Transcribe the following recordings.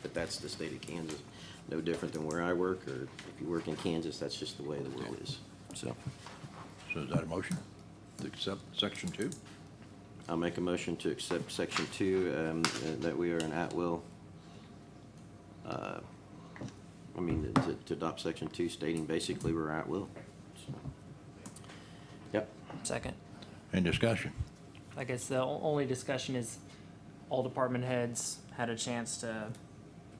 but that's the state of Kansas. No different than where I work, or if you work in Kansas, that's just the way the world is. So So is that a motion to accept section two? I'll make a motion to accept section two, um, uh, that we are an at-will. uh, I mean, to, to adopt section two stating basically we're at-will. Yep, Second. Any discussion? I guess the o- only discussion is all department heads had a chance to,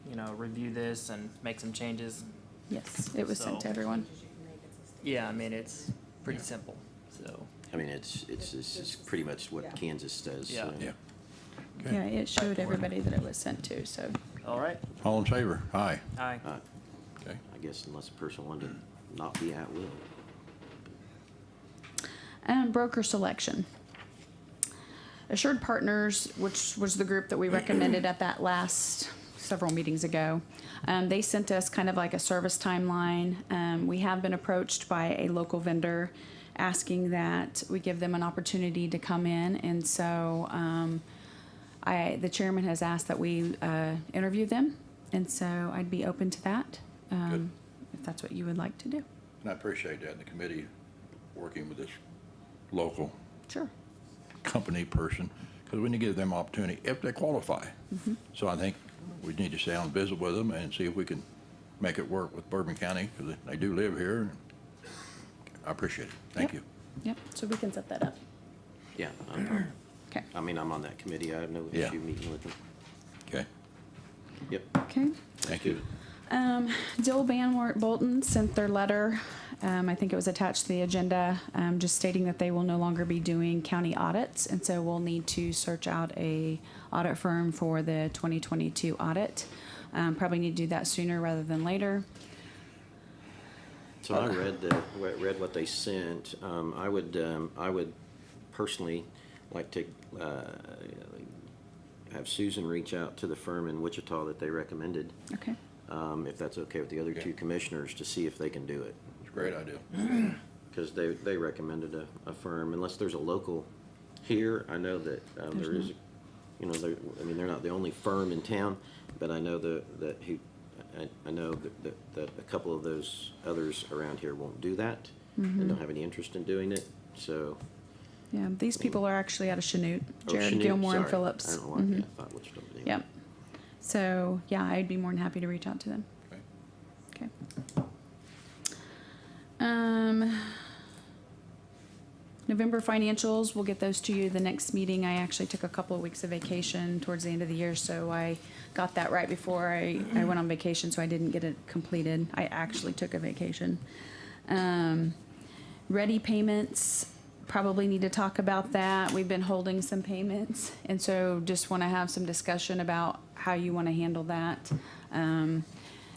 you know, review this and make some changes. Yes, it was sent to So- everyone. Yeah, I mean, it's pretty simple, so. I mean, it's, it's, it's it's pretty much what Kansas says. so. Yeah. Yeah. Okay. Yeah, it showed everybody that it was sent to, so. All right, All in favor? Aye. aye. Uh, Okay. I guess unless a person wanted to not be at will. Um, broker selection. Assured Partners, which was the group that we recommended at that last several meetings ago, um, they sent us kind of like a service timeline. Um, we have been approached by a local vendor asking that we give them an opportunity to come in, and so um, I the chairman has asked that we uh, interview them, and so I'd be open to that um, if that's what you would like to do. And I appreciate that, and the committee working with this local Sure. company person, because we need to give them opportunity if they qualify. So I think we need to stay on visit with them and see if we can make it work with Bourbon County, because they do live here. I appreciate it. Thank you. Yep. Yep. So we can set that up. Yeah, I'm- Okay. I mean, I'm on that committee, I have no Yeah. issue meeting with them. Okay, Yep. Okay. thank you. Um, Dill Banwart Bolton sent their letter. Um, I think it was attached to the agenda, um, just stating that they will no longer be doing county audits, and so we'll need to search out a audit firm for the 2022 audit. Um, probably need to do that sooner rather than later. So I read the, re- read what they sent. Um, I would, um, I would personally like to, uh, have Susan reach out to the firm in Wichita that they recommended, Okay. um, if that's okay with the other two Okay. commissioners, to see if they can do it. It's a great idea. Because they, they recommended a, a firm, unless there's a local here, I know that, um, there is, you know, there, I mean, they're not the only firm in town, but I know the, that who, I, I know that, that, that a couple of those others around here won't do that, Mm-hmm. and don't have any interest in doing it, so. Yeah, these people are actually out of Chanute, oh, Jared Chanute, Gilmore and sorry. I Phillips. Mm-hmm. don't know why, I thought Wichita, but anyway. Yep. So yeah, I'd be more than happy to reach out to them. Okay. Okay. Um, November financials, we'll get those to you the next meeting. I actually took a couple of weeks of vacation towards the end of the year, so I got that right before I, I went on vacation, so I didn't get it completed. I actually took a vacation. Um, ready payments, probably need to talk about that. We've been holding some payments, and so just want to have some discussion about how you want to handle that. Um,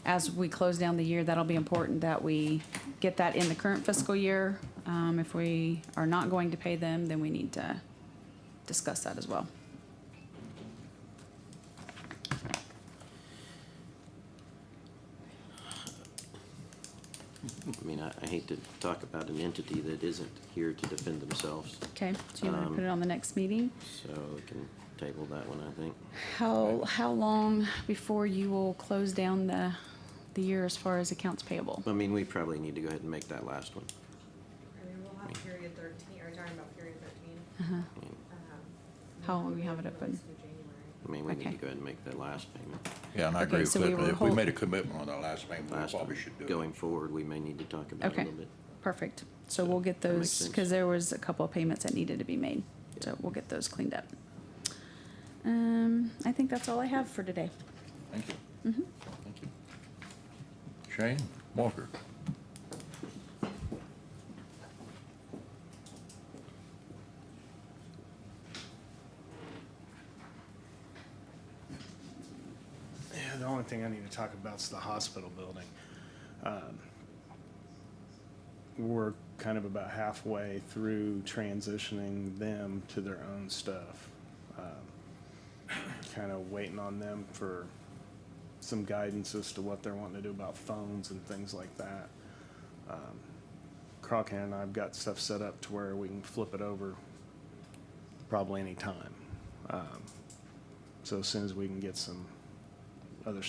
as we close down the year, that'll be important that we get that in the current fiscal year. Um, if we are not going to pay them, then we need to discuss that as well. I mean, I, I hate to talk about an entity that isn't here to defend themselves, Okay, so you want to Um, put it on the next meeting? so we can table that one, I think. How, how long before you will close down the, the year as far as accounts payable? I mean, we probably need to go ahead and make that last one. I mean, we'll have period thirteen, are you talking about period thirteen? Um, I mean, Uh-huh. How long we have it open? I mean, we need to Okay. go ahead and make that last payment. Yeah, and I Okay, agree with so we Cliff. were If we hold- made a commitment on our last payment, we Last probably one, should do it. going forward, we may need to talk about it a Okay. little bit. Perfect. So we'll get That makes those, sense. because there was a couple of payments that needed to be made. So we'll get those cleaned up. Um, I think that's all I have for today. Thank you. Mm-hmm. Thank you. Shane Walker. Yeah, the only thing I need to talk about is the hospital building. Um, We're kind of about halfway through transitioning them to their own stuff. Kind of waiting on them for some guidance as to what they're wanting to do about phones and things like that. Um, Crockett and I've got stuff set up to where we can flip it over probably any time. Um, so as soon as we can get some